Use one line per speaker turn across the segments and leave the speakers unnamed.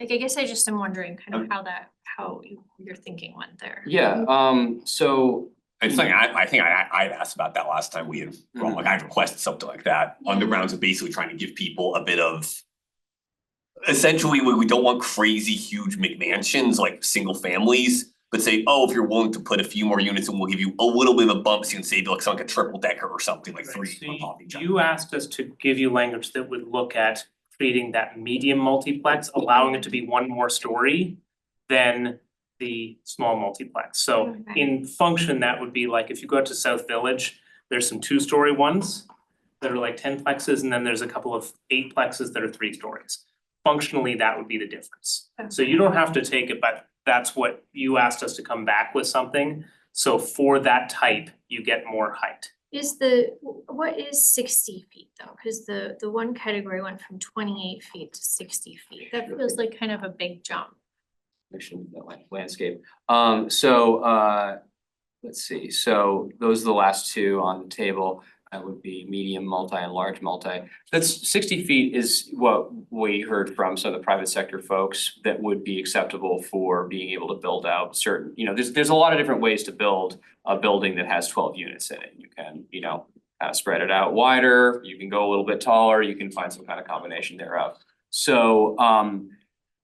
Like, I guess I just am wondering kind of
Okay.
how that, how you- your thinking went there.
Yeah, um, so
It's like, I, I think I, I had asked about that last time we had, well, like I had requested something like that, on the
Mm-hmm. Yeah.
grounds of basically trying to give people a bit of. Essentially, we, we don't want crazy huge McMansions, like single families, but say, oh, if you're willing to put a few more units and we'll give you a little bit of a bump, so you can save like something like a triple decker or something, like
Right,
three
so
on top of each
you-
other.
you asked us to give you language that would look at creating that medium multiplex, allowing it to be one more story than the small multiplex. So
Okay.
in function, that would be like if you go out to South Village, there's some two-story ones that are like ten plexes, and then there's a couple of eight plexes that are three stories. Functionally, that would be the difference. So you don't have to take it, but that's what you asked us to come back with something. So for that type, you get more height.
Is the, wh- what is sixty feet though? Cause the, the one category went from twenty-eight feet to sixty feet. That feels like kind of a big jump.
actually move that lan- landscape. Um, so uh, let's see, so those are the last two on the table. That would be medium, multi and large multi. That's sixty feet is what we heard from some of the private sector folks that would be acceptable for being able to build out certain, you know, there's there's a lot of different ways to build a building that has twelve units in it. You can, you know, kind of spread it out wider, you can go a little bit taller, you can find some kind of combination thereof. So um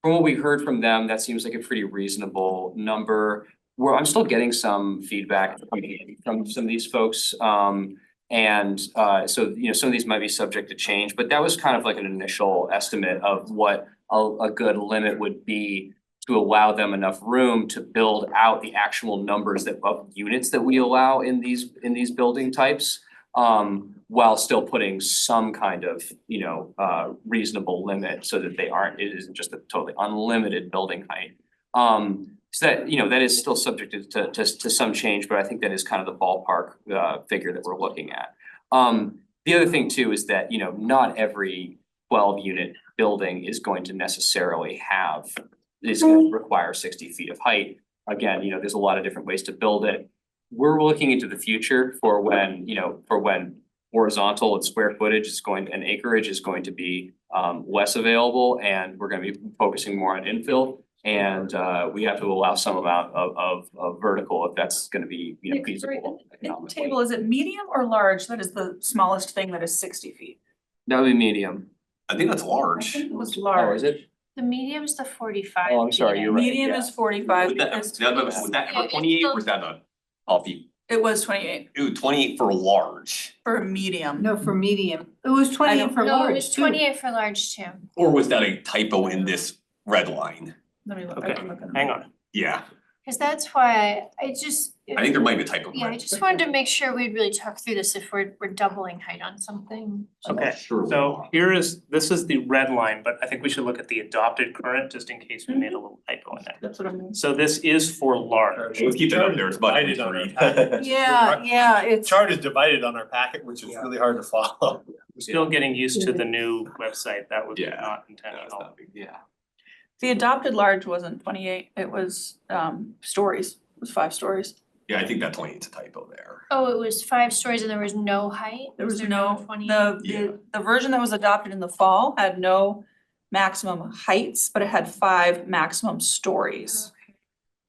from what we heard from them, that seems like a pretty reasonable number. Where I'm still getting some feedback from from some of these folks. Um and uh so, you know, some of these might be subject to change, but that was kind of like an initial estimate of what a a good limit would be to allow them enough room to build out the actual numbers that of units that we allow in these in these building types. Um while still putting some kind of, you know, uh reasonable limit so that they aren't, it isn't just a totally unlimited building height. Um so that, you know, that is still subject to to to to some change, but I think that is kind of the ballpark uh figure that we're looking at. Um the other thing too is that, you know, not every twelve unit building is going to necessarily have is gonna require sixty feet of height. Again, you know, there's a lot of different ways to build it. We're looking into the future for when, you know, for when horizontal and square footage is going, and acreage is going to be um less available and we're gonna be focusing more on infill. And uh we have to allow some amount of of of vertical if that's gonna be, you know,
Yeah, sorry,
feasible
In the
economically.
Table, is it medium or large? That is the smallest thing that is sixty feet.
That would be medium.
I think that's
I
large.
think it was
Oh,
large.
is it?
The medium's the forty-five.
Oh, I'm sorry,
feet.
you're right.
Medium
yeah.
is forty-five,
Would that-
because
that- that- would that
Yeah,
ever
it's
twenty-eight,
still-
or is that a, I'll be,
it was twenty-eight
ooh, twenty-eight for large?
for a medium.
No, for medium. It was
I know.
twenty for
No, it was
large too.
twenty-eight for large too.
Or was that a typo in this red line?
Let me look, I
Okay,
can look at
hang on.
Yeah,
Cause that's why I just.
I think there might be a typo. in
Yeah,
red.
I just wanted to make sure we really talk through this if we're, we're doubling height on something.
I'm
Okay,
sure we
So
are.
here is, this is the red line, but I think we should look at the adopted current just in case we made a little typo in there.
That's what I mean.
So this is for large.
Let's keep it up there, it's much.
Divided on our packet.
Yeah, yeah,
The
it's.
Chart is divided on our packet, which is really hard to follow.
We're still getting used to the new website. That was
Yeah.
not
No, it's
intentional.
not big.
Yeah.
The adopted large wasn't twenty-eight, it was um stories, it was five stories.
Yeah, I think that twenty-eight's a typo there.
Oh, it was five stories and there was no height?
There was no,
Twenty?
the
Yeah.
the the version that was adopted in the fall had no maximum heights, but it had five maximum stories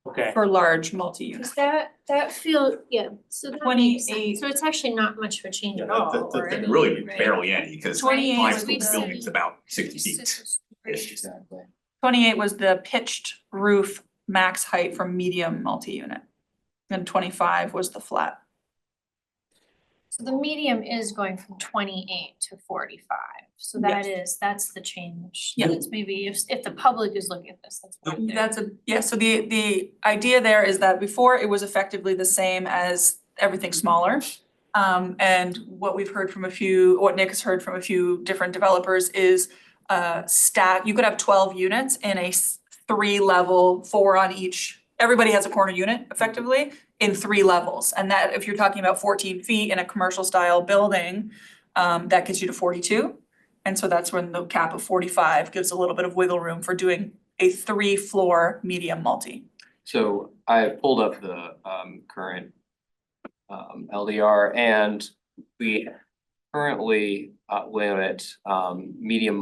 Okay,
for large multi-unit.
Oh, Cause that, that feel, yeah, so that makes sense.
28.
So it's actually not much of a change at
Yeah,
all,
that- that-
or
that-
any,
Really
Oh, right?
barely any, because
Right, 28
high
is
school
the-
building's about sixty
It's just
feet.
this
Ish.
crazy-
Exactly.
Twenty-eight was the pitched roof max height for medium multi-unit. And twenty-five was the flat.
So the medium is going from twenty-eight to forty-five, so that is, that's the change.
Yeah.
That's maybe if, if the public is looking at this, that's right there.
That's a, yeah, so the, the idea there is that before it was effectively the same as everything smaller. Um, and what we've heard from a few, what Nick has heard from a few different developers is uh stack, you could have twelve units in a s- three level, four on each, everybody has a corner unit effectively in three levels. And that, if you're talking about fourteen feet in a commercial style building, um, that gets you to forty-two. And so that's when the cap of forty-five gives a little bit of wiggle room for doing a three-floor medium multi.
So I pulled up the um current um LDR and we currently uh limit um medium